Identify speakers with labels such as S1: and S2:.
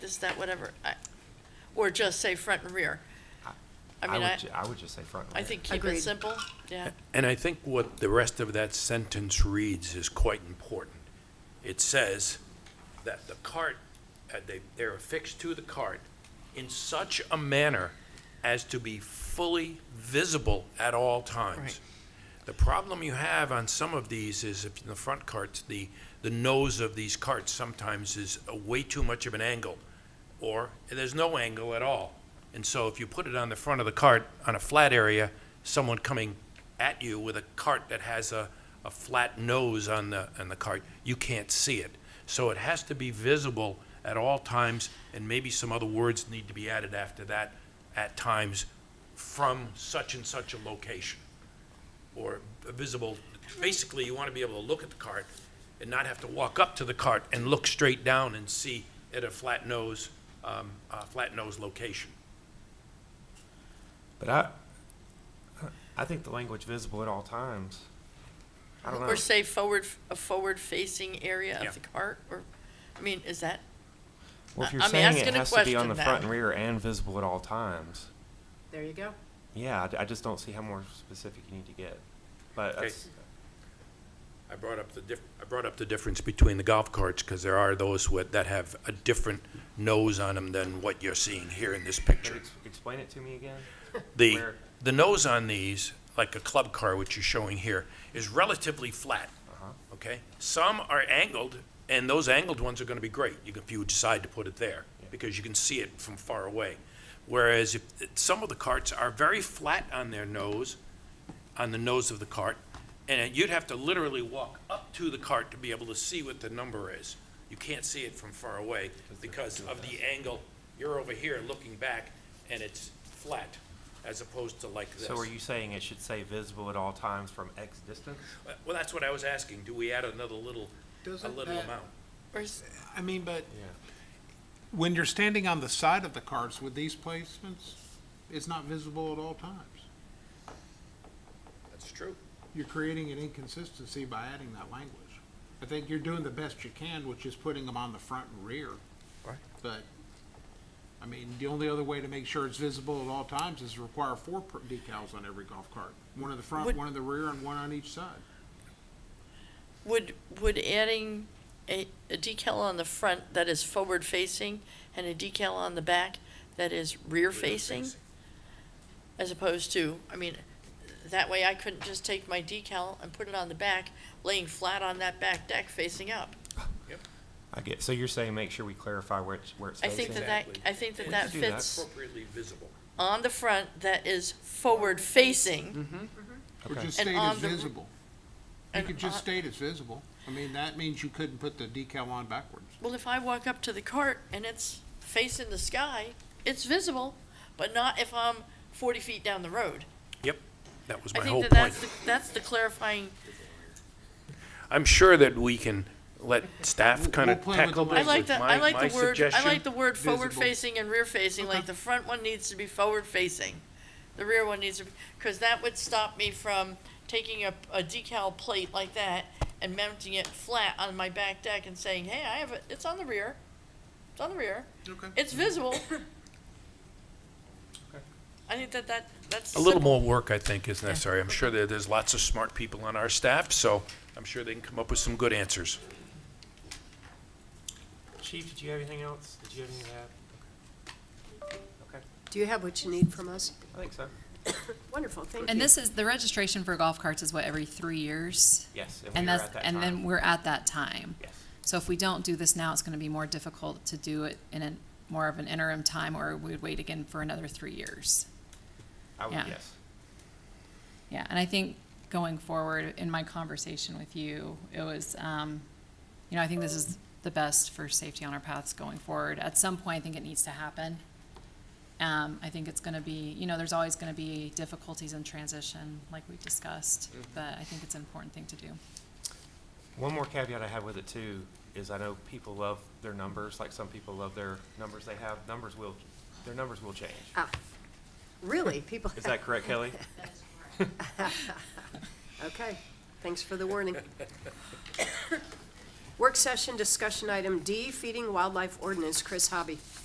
S1: is that whatever? I- Or just say front and rear? I mean,
S2: would
S1: I,
S2: ju- I would just say front and
S1: I
S2: rear.
S1: think keep it
S3: Agreed.
S1: simple, yeah.
S4: And I think what the rest of that sentence reads is quite important. It says that the cart, uh, they, they're affixed to the cart in such a manner as to be fully visible at all
S1: Right.
S4: times. The problem you have on some of these is if in the front carts, the, the nose of these carts sometimes is uh, way too much of an angle, or there's no angle at all. And so if you put it on the front of the cart on a flat area, someone coming at you with a cart that has a, a flat nose on the, on the cart, you can't see it. So it has to be visible at all times, and maybe some other words need to be added after that, at times, from such and such a location or visible, basically, you want to be able to look at the cart and not have to walk up to the cart and look straight down and see at a flat nose, um, a flat nose location.
S2: But I, I think the language visible at all times. I don't know.
S1: Or say forward, a forward-facing area
S4: Yeah.
S1: of the cart, or, I mean, is that,
S2: Well, if
S1: I-
S2: you're
S1: I'm
S2: saying it
S1: asking a
S2: has to be on
S1: question
S2: the
S1: now.
S2: front and rear and visible at all times,
S3: There you go.
S2: yeah, I d- I, just don't see how more specific you need to get. But
S4: Okay.
S2: that's,
S4: I brought up the diff, I brought up the difference between the golf carts, because there are those with, that have a different nose on them than what you're seeing here in this
S2: can you
S4: picture.
S2: ex- explain it to me again?
S4: The,
S2: Where-
S4: the nose on these, like a club car, which you're showing here, is relatively flat. Okay? Some are angled, and those angled ones are gonna be great, you can- if you decide to put it there, because you can see it from far away. Whereas if, some of the carts are very flat on their nose, on the nose of the cart, and you'd have to literally walk up to the cart to be able to see what the number is. You can't see it from far away because of the angle. You're over here looking back, and it's flat, as opposed to like this.
S2: So are you saying it should say visible at all times from X distance?
S4: Uh, Well, that's what I was asking. Do we add another little, a
S5: Doesn't
S4: little
S5: that-
S4: amount?
S1: or is,
S5: I mean, but
S2: Yeah.
S5: when you're standing on the side of the cars with these placements, it's not visible at all times.
S4: That's true.
S5: You're creating an inconsistency by adding that language. I think you're doing the best you can, which is putting them on the front and rear.
S2: Right.
S5: But, I mean, the only other way to make sure it's visible at all times is require four per- decals on every golf cart. One in the front,
S1: Would-
S5: one in the rear, and one on each side.
S1: would, would adding a, a decal on the front that is forward-facing and a decal on the back that is rear-facing? As opposed to, I mean, that way I couldn't just take my decal and put it on the back, laying flat on that back deck facing up.
S2: I get, so you're saying make sure we clarify where it's, where it's
S1: I
S2: facing?
S1: think that that,
S4: Exactly.
S1: I think that
S4: Let's
S1: that
S2: do that.
S1: fits
S4: Appropriately visible.
S1: on the front that is
S4: Mm-hmm.
S1: forward-facing
S5: Or
S2: Okay.
S5: just
S1: And
S5: state
S1: on
S5: it's
S1: the-
S5: visible. You
S1: and
S5: could just
S1: on-
S5: state it's visible. I mean, that means you couldn't put the decal on backwards.
S1: Well, if I walk up to the cart and it's facing the sky, it's visible, but not if I'm forty feet down the road.
S4: Yep, that was
S1: I
S4: my
S1: think
S4: whole
S1: that
S4: point.
S1: that's, the that's the clarifying,
S4: I'm sure that we can let staff
S5: We'll-
S4: kind of
S5: we'll play with
S4: tackle
S5: the
S4: this
S1: I
S5: That
S1: like
S4: with
S1: the,
S4: my-
S1: I like
S4: my
S1: the word, I
S4: suggestion.
S1: like the word
S5: Visible.
S1: forward-facing and rear-facing, like the front one needs to be forward-facing. The rear one needs to, because that would stop me from taking a, a decal plate like that and mounting it flat on my back deck and saying, hey, I have it, it's on the rear, it's on the rear.
S5: Okay.
S1: It's visible. I think that that, that's.
S4: A little
S1: simple.
S4: more work, I think, is necessary. I'm sure that there's lots of smart people on our staff, so I'm sure they can come up with some good answers.
S2: Chief, did you have anything else? Did you have anything to add? Okay. Okay,
S3: Do you have what you need from us?
S2: I think so.
S3: Wonderful, thank you.
S6: And this is, the registration for golf carts is what, every three years?
S2: Yes.
S6: And
S2: we are
S6: that's,
S2: at that
S6: and
S2: time.
S6: then we're at that time.
S2: Yes.
S6: So if we don't do this now, it's gonna be more difficult to do it in a, more of an interim time, or we'd wait again for another three years.
S2: I would,
S6: Yeah.
S2: yes.
S6: Yeah, and I think going forward, in my conversation with you, it was, um, you know, I think this is the best for safety on our paths going forward. At some point, I think it needs to happen. Um, I think it's gonna be, you know, there's always gonna be difficulties in transition, like we discussed, but I think it's an important thing to do.
S2: One more caveat I have with it too is I know people love their numbers, like some people love their numbers they have. Numbers will, their numbers will change.
S3: Ah, Really, people?
S2: Is that correct, Kelly?
S3: Okay, thanks for the warning. Work session discussion item D, feeding wildlife ordinance, Chris Hobby.